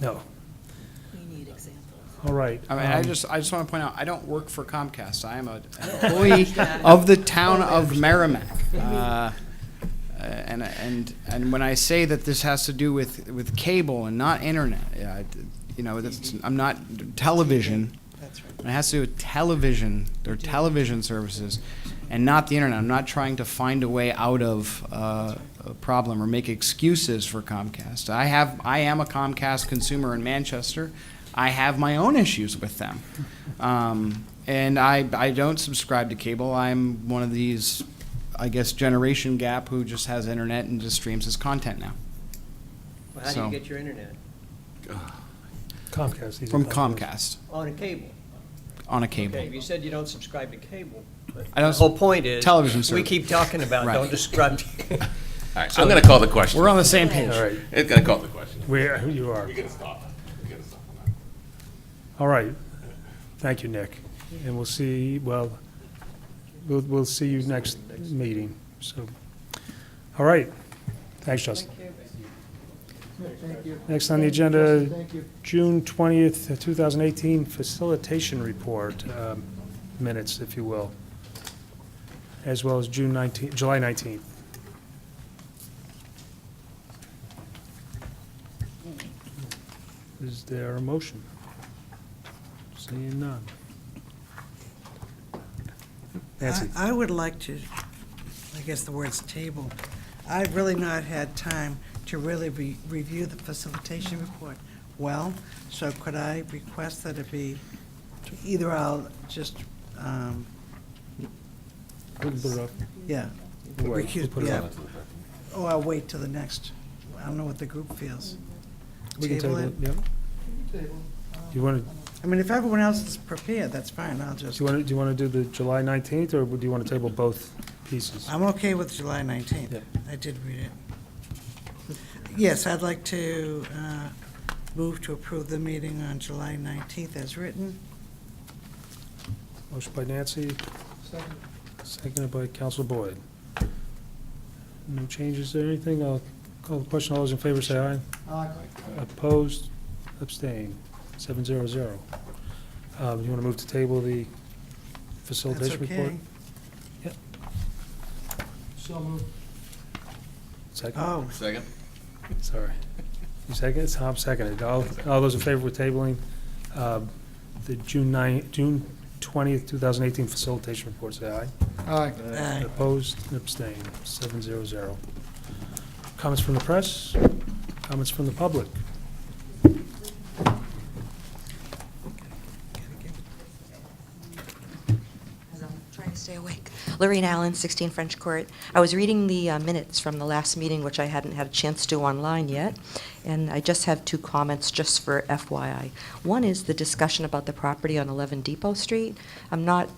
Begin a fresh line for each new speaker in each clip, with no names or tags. No.
We need examples.
All right.
I mean, I
um,
just, I just want to point out, I don't work for Comcast. I am a- an employee of the town of Merrimack. Uh, And, and, and when I say that this has to do with, with cable and not internet, yeah, I- you know, that's, I'm not, television.
That's right.
It has to do with television, their television services, and not the internet. I'm not trying to find a way out of uh, a problem or make excuses for Comcast. I have, I am a Comcast consumer in Manchester. I have my own issues with them. Um, And I, I don't subscribe to cable. I'm one of these, I guess, generation gap who just has internet and just streams his content now.
Well, how do
So-
you get your internet?
Comcast. these are
From Comcast,
On a cable.
on a
Okay,
cable.
you said you don't subscribe to cable. but
I don't
The whole point is.
television
We
service.
keep talking about,
Right.
don't describe. to-
All right, I'm going to call the question.
We're on the same page.
All right,
It's going to call the question.
where, who you are.
We got to stop. We got to stop on that.
All right. Thank you, Nick. And we'll see, well, we'll, we'll see you next meeting, so. All right. Thanks, Justin. Next on the agenda, June 20th, 2018 Facilitation Report, um, minutes, if you will, as well as June 19th, July 19th. Is there a motion? Seeing none. Nancy,
I I would like to, I guess the word's table. I've really not had time to really re- review the facilitation report well, so could I request that it be, either I'll just, um,
we'll put it up.
yeah.
We'll wait.
recuse-
We'll put it
yeah.
up.
Or I'll wait till the next, I don't know what the group feels.
We can table it, yeah. Do you want to,
I mean, if everyone else is prepared, that's fine, I'll
do
just,
you want to, do you want to do the July 19th, or do you want to table both pieces?
I'm okay with July 19th.
Yep.
I did read it. Yes, I'd like to uh, move to approve the meeting on July 19th as written.
Motion by Nancy, seconded by Counsel Boyd. No changes or anything? I'll call the question. All those in favor say aye. Opposed, abstained, seven zero zero. Um, You want to move to table the
That's
facilitation report?
okay.
Second,
Oh,
Second?
sorry. You second, Tom seconded. All, all those in favor with tabling, um, the June nine, June twentieth, two thousand eighteen facilitation report, say aye.
aye.
Uh, Opposed and abstained, seven zero zero. Comments from the press? Comments from the public?
as I'm trying to stay awake. Lorraine Allen, 16 French Court. I was reading the uh, minutes from the last meeting, which I hadn't had a chance to do online yet, and I just have two comments just for FYI. One is the discussion about the property on 11 Depot Street. I'm not,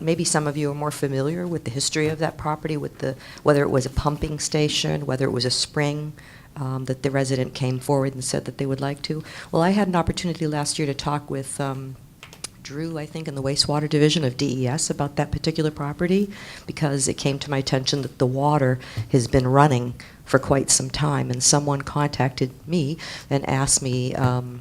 maybe some of you are more familiar with the history of that property, with the, whether it was a pumping station, whether it was a spring, um, that the resident came forward and said that they would like to. Well, I had an opportunity last year to talk with um, Drew, I think, in the wastewater division of DES about that particular property because it came to my attention that the water has been running for quite some time, and someone contacted me and asked me um,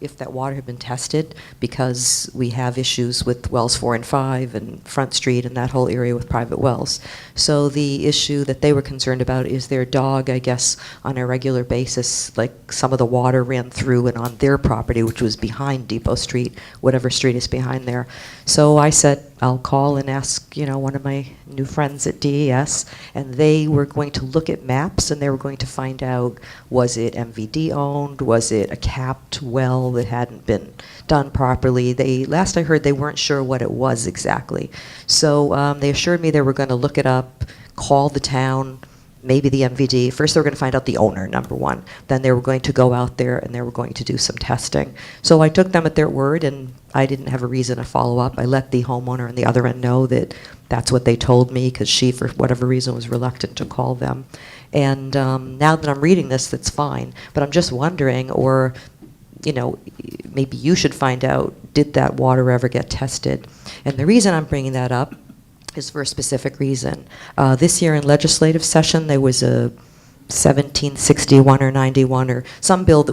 if that water had been tested because we have issues with wells four and five and Front Street and that whole area with private wells. So the issue that they were concerned about is their dog, I guess, on a regular basis, like some of the water ran through and on their property, which was behind Depot Street, whatever street is behind there. So I said, I'll call and ask, you know, one of my new friends at DES, and they were going to look at maps and they were going to find out was it MVD owned, was it a capped well that hadn't been done properly. They last I heard they weren't sure what it was exactly. So um, they assured me they were going to look it up, call the town, maybe the MVD. First, they were going to find out the owner, number one. Then they were going to go out there and they were going to do some testing. So I took them at their word, and I didn't have a reason to follow up. I let the homeowner on the other end know that that's what they told me because she, for whatever reason, was reluctant to call them. And um, now that I'm reading this, that's fine. But I'm just wondering, or you know, maybe you should find out did that water ever get tested? And the reason I'm bringing that up is for a specific reason. Uh, this year in legislative session, there was a 1761 or 91 or some bill that